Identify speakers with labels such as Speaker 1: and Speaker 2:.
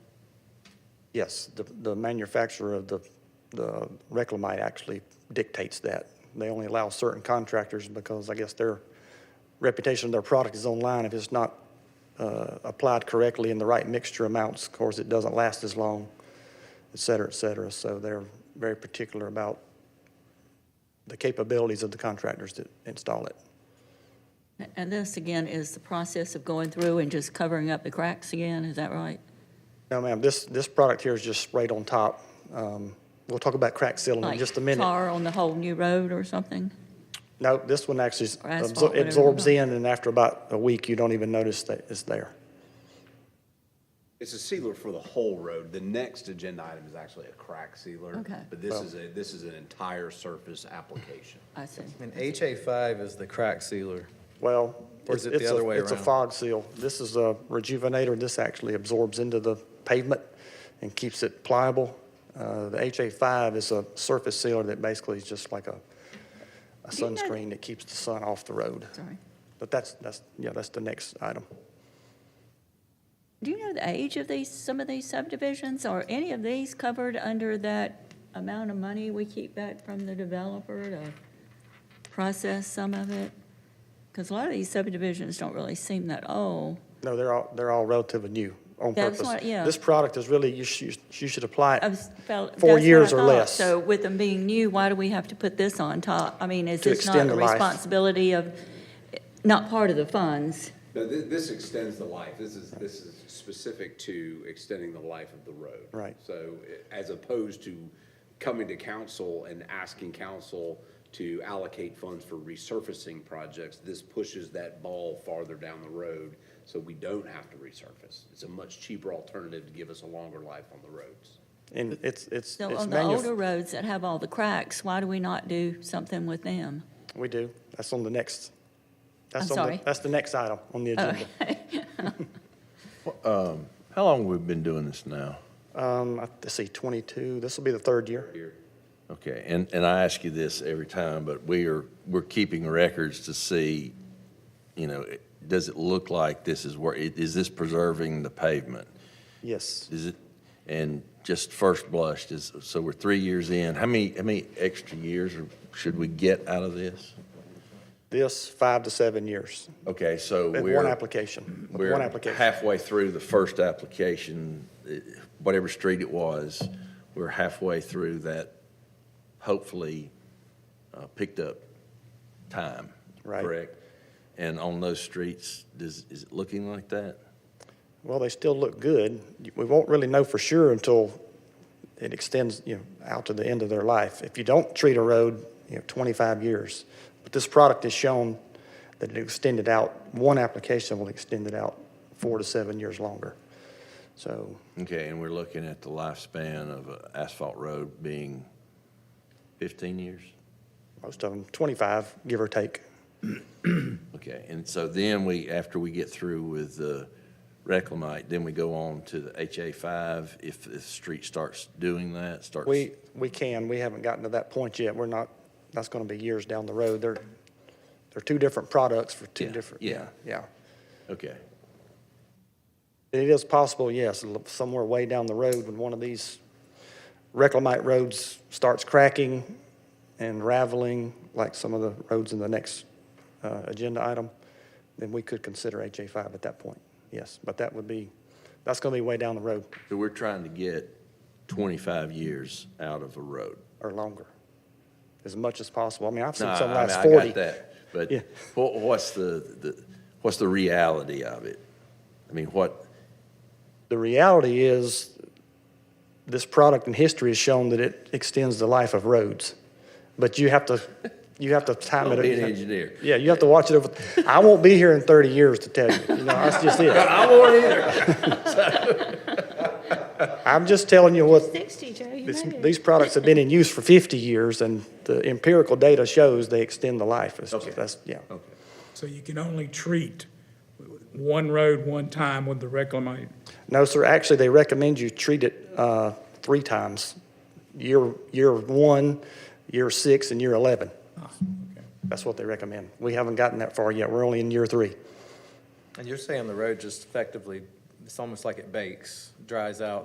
Speaker 1: Yes, the, the manufacturer of the, the Reclamite actually dictates that. They only allow certain contractors because I guess their reputation of their product is online. If it's not, uh, applied correctly in the right mixture amounts, of course, it doesn't last as long, et cetera, et cetera. So they're very particular about the capabilities of the contractors that install it.
Speaker 2: And this, again, is the process of going through and just covering up the cracks again, is that right?
Speaker 1: No, ma'am, this, this product here is just sprayed on top. Um, we'll talk about crack sealing in just a minute.
Speaker 2: Like tar on the whole new road or something?
Speaker 1: No, this one actually s-
Speaker 2: Or asphalt,
Speaker 1: absor-
Speaker 2: whatever.
Speaker 1: absorbs in, and after about a week, you don't even notice that it's there.
Speaker 3: It's a sealer for the whole road. The next agenda item is actually a crack sealer.
Speaker 2: Okay.
Speaker 3: But this is a, this is an entire surface application.
Speaker 2: I see.
Speaker 4: And HA five is the crack sealer.
Speaker 1: Well,
Speaker 4: Or
Speaker 1: it's-
Speaker 4: is it the
Speaker 1: it's a-
Speaker 4: other way
Speaker 1: It's a
Speaker 4: around?
Speaker 1: fog seal. This is a rejuvenator. This actually absorbs into the pavement and keeps it pliable. Uh, The HA5 is a surface sealer that basically is just like a a
Speaker 2: Do you know-
Speaker 1: sunscreen that keeps the sun off the road.
Speaker 2: Sorry.
Speaker 1: But that's, that's, yeah, that's the next item.
Speaker 2: Do you know the age of these, some of these subdivisions? Are any of these covered under that amount of money we keep back from the developer to process some of it? Because a lot of these subdivisions don't really seem that old.
Speaker 1: No, they're all, they're all relatively new on
Speaker 2: That's
Speaker 1: purpose.
Speaker 2: what- yeah.
Speaker 1: This product is really, you should, you should apply
Speaker 2: I
Speaker 1: it
Speaker 2: was- felt-
Speaker 1: Four
Speaker 2: that's what I
Speaker 1: years or
Speaker 2: thought.
Speaker 1: less.
Speaker 2: So with them being new, why do we have to put this on top? I mean, is
Speaker 1: To
Speaker 2: this not
Speaker 1: extend
Speaker 2: a
Speaker 1: the life.
Speaker 2: responsibility of, not part of the funds?
Speaker 3: No, this, this extends the life. This is, this is specific to extending the life of the road.
Speaker 1: Right.
Speaker 3: So eh, as opposed to coming to council and asking council to allocate funds for resurfacing projects, this pushes that ball farther down the road so we don't have to resurface. It's a much cheaper alternative to give us a longer life on the roads.
Speaker 1: And it's, it's,
Speaker 2: So
Speaker 1: it's
Speaker 2: on the older
Speaker 1: manu,
Speaker 2: roads that have all the cracks, why do we not do something with them?
Speaker 1: we do, that's on the next, that's on
Speaker 2: I'm
Speaker 1: the,
Speaker 2: sorry. Oh.
Speaker 1: that's the next item on the agenda.
Speaker 5: How long we've been doing this now?
Speaker 1: Um, I- let's see, twenty-two, this will be the third year.
Speaker 5: Okay, and, and I ask you this every time, but we are, we're keeping records to see, you know, it- does it look like this is where, i- is this preserving the pavement?
Speaker 1: Yes,
Speaker 5: Is it, and just first blush, is, so we're three years in, how many, how many extra years are- should we get out of this?
Speaker 1: this, five to seven years,
Speaker 5: Okay, so
Speaker 1: with
Speaker 5: we're.
Speaker 1: one application, with one
Speaker 5: We're
Speaker 1: application.
Speaker 5: halfway through the first application, eh, whatever street it was, we're halfway through that hopefully uh, picked up time,
Speaker 1: Right.
Speaker 5: correct? And on those streets, does, is it looking like that?
Speaker 1: Well, they still look good. We won't really know for sure until it extends, you know, out to the end of their life. If you don't treat a road, you know, twenty-five years. But this product has shown that it extended out, one application will extend it out four to seven years longer. So,
Speaker 5: Okay, and we're looking at the lifespan of an asphalt road being 15 years?
Speaker 1: most of them, twenty-five, give or take.
Speaker 5: Okay, and so then we, after we get through with the reclamite, then we go on to the HA five, if the street starts doing that, starts.
Speaker 1: We, we can, we haven't gotten to that point yet. We're not, that's going to be years down the road. They're, they're two different products for two
Speaker 5: Yeah,
Speaker 1: different.
Speaker 5: yeah.
Speaker 1: Yeah.
Speaker 5: Okay,
Speaker 1: It is possible, yes, l- somewhere way down the road when one of these reclamite roads starts cracking and raveling, like some of the roads in the next uh, agenda item, then we could consider HA5 at that point, yes. But that would be, that's going to be way down the road
Speaker 5: so we're trying to get twenty-five years out of a road.
Speaker 1: or longer, as much as possible. I mean, I've
Speaker 5: No,
Speaker 1: seen some
Speaker 5: I- I mean,
Speaker 1: last
Speaker 5: I
Speaker 1: 40.
Speaker 5: got that, But
Speaker 1: Yeah.
Speaker 5: what, what's the, the, what's the reality of it? I mean, what,
Speaker 1: The reality is, this product in history has shown that it extends the life of roads. But you have to, you have to time it.
Speaker 5: Don't be an engineer.
Speaker 1: Yeah, you have to watch it over, I won't be here in 30 years to tell you, you know, that's just it.
Speaker 5: I won't either.
Speaker 1: I'm just telling you what,
Speaker 2: Sixty, Joe, you
Speaker 1: this- these products have been in use for 50 years, and the empirical data shows they extend the life. It's just-
Speaker 5: Okay.
Speaker 1: That's, yeah.
Speaker 5: Okay.
Speaker 6: So you can only treat one road one time with the reclamite.
Speaker 1: No, sir, actually, they recommend you treat it uh, three times, year, year one, year six, and year 11. That's what they recommend. We haven't gotten that far yet. We're only in year three.
Speaker 4: And you're saying the road just effectively, it's almost like it bakes, dries out,